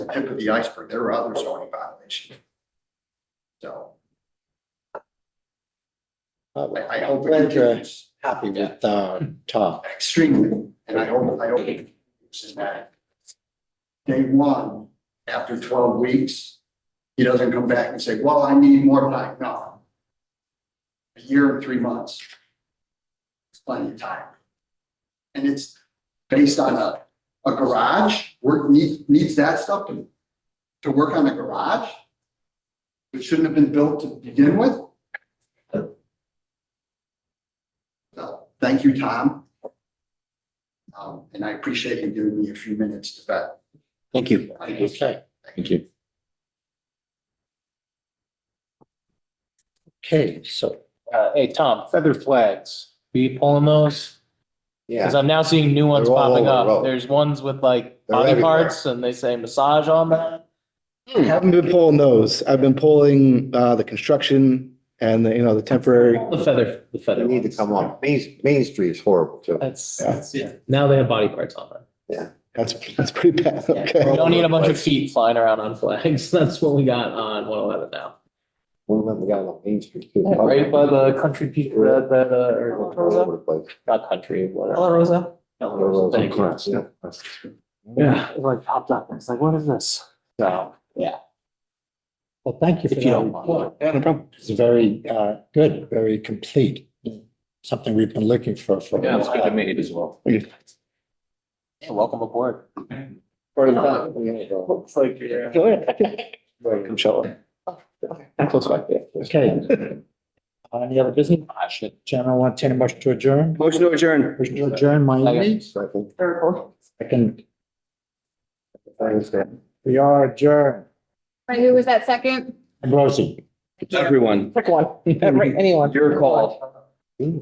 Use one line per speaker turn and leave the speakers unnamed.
tip of the iceberg. There are other zoning violations. So I, I hope it
Glad you're
continues
Happy with, uh,
Hmm.
Tom.
extremely, and I hope, I hope it is that day one, after twelve weeks, he doesn't come back and say, well, I need more time. No. A year and three months. It's plenty of time. And it's based on a, a garage, work needs, needs that stuff to, to work on a garage. It shouldn't have been built to begin with. So, thank you, Tom. Um, and I appreciate you giving me a few minutes to vet.
Thank you.
Thank you.
Okay.
Thank you.
Okay, so,
Uh, hey, Tom, feather flags, be pulling those?
Yeah,
Cause I'm now seeing new ones
They're all
popping
over the
up.
road.
There's ones with like
They're
body
everywhere.
parts and they say massage on them.
haven't been pulling those. I've been pulling, uh, the construction and the, you know, the temporary.
The feather, the
They
feather.
need to
ones.
come on. Main, Main Street is horrible too.
That's,
Yeah.
that's- yeah. now they have body parts on them.
That's, that's pretty bad.
Yeah. We don't
Okay.
need a bunch of feet flying around on flags. That's what we got on one eleven now.
One of them got on Main Street too.
uh, Right by the country people that, that, uh,
All
or,
over the place.
not country,
La
whatever.
Rosa.
Thank you.
Yeah.
Yeah, it like popped up. It's like, what is this? So, yeah.
well, thank you for
If you
that
don't mind.
report. It's very, uh, good, very complete. Something we've been looking for for. a while.
meet as well.
Yeah.
Yeah, uh, welcome aboard.
Part of the-
Looks like you're. uh, Oh,
Come show it. Close like that.
Okay. Uh, Any other business?
Ah,
I should. General, want to take a motion to adjourn?
Motion to adjourn.
Motion to adjourn, Miami.
Second.
Second,
Thanks, man.
we are adjourned.
Right, who was that second?
Ambrosi.
Everyone.
Pick one, Right, anyone.
Your call.